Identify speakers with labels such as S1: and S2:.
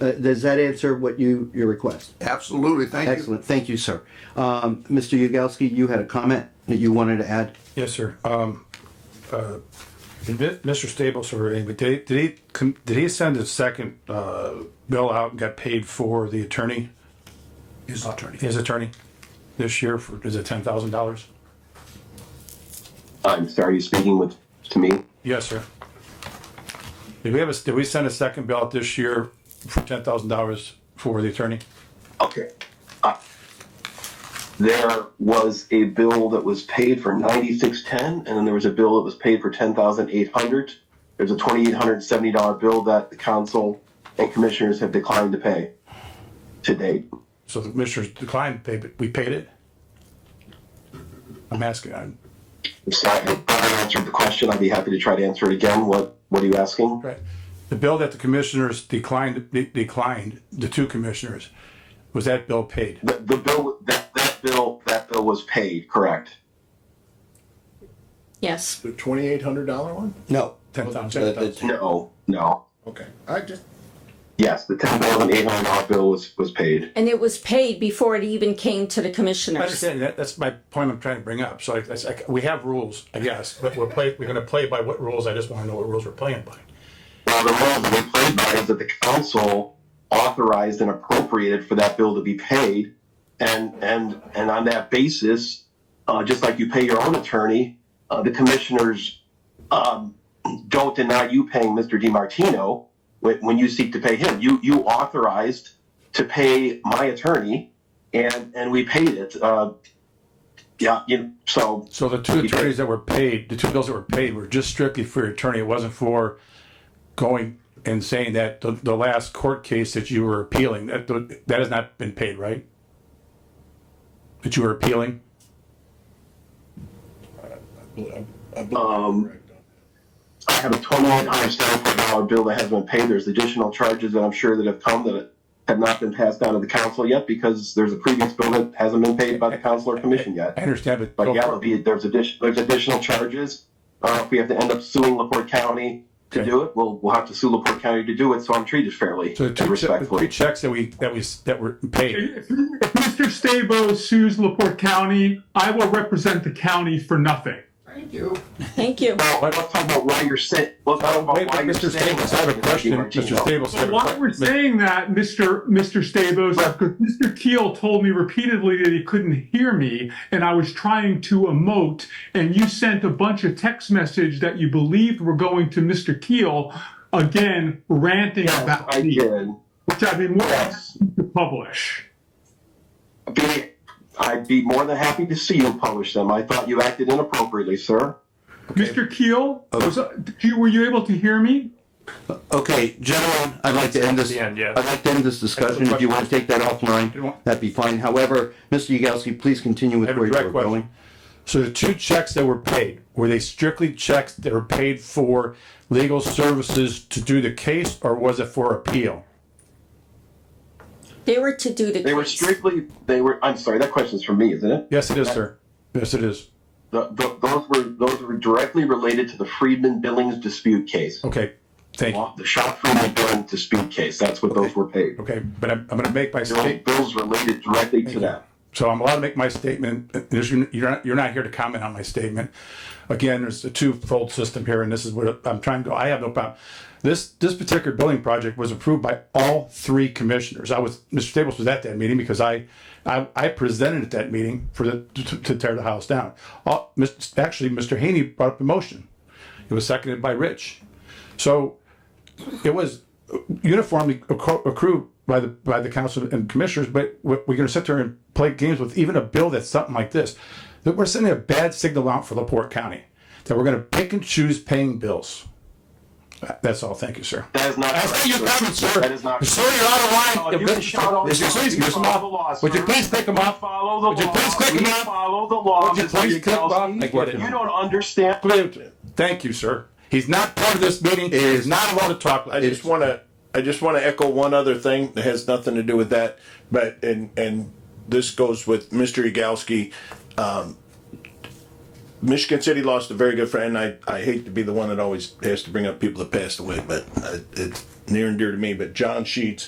S1: Uh, Does that answer what you, your request?
S2: Absolutely, thank you.
S1: Excellent, thank you, sir. Um, Mr. Yagowski, you had a comment that you wanted to add?
S3: Yes, sir. Um, uh, Mi- Mr. Staples, or anybody, did he, did he, com- did he send his second, uh, bill out and got paid for the attorney? His attorney. His attorney this year for, is it ten thousand dollars?
S4: I'm sorry, you're speaking with, to me?
S3: Yes, sir. Did we have a, did we send a second bill out this year for ten thousand dollars for the attorney?
S4: Okay. Ah. There was a bill that was paid for ninety-six ten, and then there was a bill that was paid for ten thousand eight hundred. There's a twenty-eight hundred and seventy dollar bill that the council and commissioners have declined to pay to date.
S3: So the commissioners declined, to pay, but we paid it? I'm asking, I'm,
S4: I'm sorry, I probably answered the question. I'd be happy to try to answer it again. What, what are you asking?
S3: Right. The bill that the commissioners declined, de- declined, the two commissioners, was that bill paid?
S4: The, the bill, that, that bill, that bill was paid, correct?
S5: Yes.
S6: The twenty-eight hundred dollar one?
S1: No.
S3: Ten
S1: Uh,
S3: thousand,
S1: the-
S3: ten thousand.
S4: No, no.
S6: Okay, I just,
S4: Yes, the ten thousand eight hundred dollar bill was, was paid.
S5: And it was paid before it even came to the
S3: I
S5: commissioners.
S3: understand that, that's my point I'm trying to bring up. So I, I- I- we have rules, I guess, but we're play, we're gonna play by what rules. I just wanna know what rules we're playing by.
S4: Well, the role that we played by is that the council authorized and appropriated for that bill to be paid. And, and, and on that basis, uh, just like you pay your own attorney, uh, the commissioners, um, don't deny you paying Mr. DiMartino when, when you seek to pay him. You, you authorized to pay my attorney and, and we paid it. Uh, yeah, you, so
S3: So the two attorneys that were paid, the two bills that were paid were just strictly for your attorney. It wasn't for going and saying that the, the last court case that you were appealing, that, that has not been paid, right? That you were appealing?
S6: I believe I'm correct on that.
S4: I have a twenty-eight hundred seventy-four dollar bill that hasn't been paid. There's additional charges that I'm sure that have come that have not been passed down to the council yet because there's a previous bill that hasn't been paid by the council or commission
S3: I
S4: yet.
S3: understand, but.
S4: But yeah, there'll be, there's addition, there's additional charges. Uh, if we have to end up suing LaPorte County to
S3: Okay.
S4: do it, we'll, we'll have to sue LaPorte County to do it, so I'm treated fairly
S3: So the
S4: and
S3: two, che- the two
S4: respectfully.
S3: checks that we, that we, s- that were paid,
S7: If if Mr. Stabo sues LaPorte County, I will represent the county for nothing.
S6: Thank you.
S5: Thank you.
S4: Well, let's talk about why you're saying, let's talk about
S3: Wait, but
S4: why you're
S3: Mr.
S4: saying.
S3: Staples, I have a question,
S4: Martino.
S3: Mr. Staples. I have
S7: But
S3: a
S7: why
S3: que-
S7: we're saying that, Mr. Mr. Stabos, is because Mr. Keel told me repeatedly that he couldn't hear me, and I was trying to emote, and you sent a bunch of text message that you believed were going to Mr. Keel, again ranting about
S4: I
S7: me,
S4: did.
S7: which I've been more than
S4: Yes.
S7: happy to publish.
S4: Be, I'd be more than happy to see you publish them. I thought you acted inappropriately, sir.
S7: Mr. Keel, was, did you- were you able to hear me?
S1: Okay, gentlemen, I'd like to end this,
S3: The end, yeah.
S1: I'd like to end this discussion. If you want to take that offline,
S3: want-
S1: that'd be fine. However, Mr. Yagowski, please continue with
S3: I have a
S1: where you
S3: direct
S1: were
S3: question.
S1: going.
S3: So the two checks that were paid, were they strictly checks that were paid for legal services to do the case, or was it for appeal?
S5: They were to do the.
S4: They were
S5: case.
S4: strictly, they were, I'm sorry, that question's for me, isn't it?
S3: Yes, it is, sir. Yes, it is.
S4: Th th those were, those were directly related to the Freedman Billings dispute case.
S3: Okay, thank you.
S4: The Shop Freedman Billings dispute case, that's what those were paid.
S3: Okay, but I'm, I'm gonna make my
S4: There were
S3: state,
S4: bills related directly to that.
S3: so I'm allowed to make my statement. There's- You're not, you're not here to comment on my statement. Again, there's a two-fold system here, and this is what I'm trying to, I have no problem. This, this particular building project was approved by all three commissioners. I was, Mr. Staples was at that meeting because I, I, I presented at that meeting for the, to to tear the house down. All, Mis- actually, Mr. Haney brought up the motion. It was seconded by Rich. So it was uniformly accru- accrued by the by the council and commissioners. But we're going to sit there and play games with even a bill that's something like this. That we're sending a bad signal out for Laporte County that we're going to pick and choose paying bills. That's all. Thank you, sir.
S4: That is not
S3: I see your
S4: correct,
S3: comments, sir.
S4: That is not. Oh,
S3: Sir, you're out of line.
S8: You can shout all
S3: Would you
S8: you want.
S3: please
S8: You
S3: pick them
S8: follow the
S3: off?
S8: law,
S3: Would you
S8: sir.
S3: please pick them off?
S8: Follow the
S3: Would you
S8: law.
S3: please click
S8: We
S3: them up?
S8: Follow the law.
S3: Would you
S8: Mr.
S3: please click them up?
S8: Yagowski.
S3: I get it.
S4: You don't understand.
S3: Thank you, sir. He's not part of this meeting.
S1: It
S3: He's
S1: is-
S3: not allowed to talk. I
S6: I just
S3: just
S6: want to, I just want to echo one other thing that has nothing to do with that, but, and, and this goes with Mr. Yagowski. Um, Michigan City lost a very good friend. I, I hate to be the one that always has to bring up people that passed away, but uh, it's near and dear to me, but John Sheets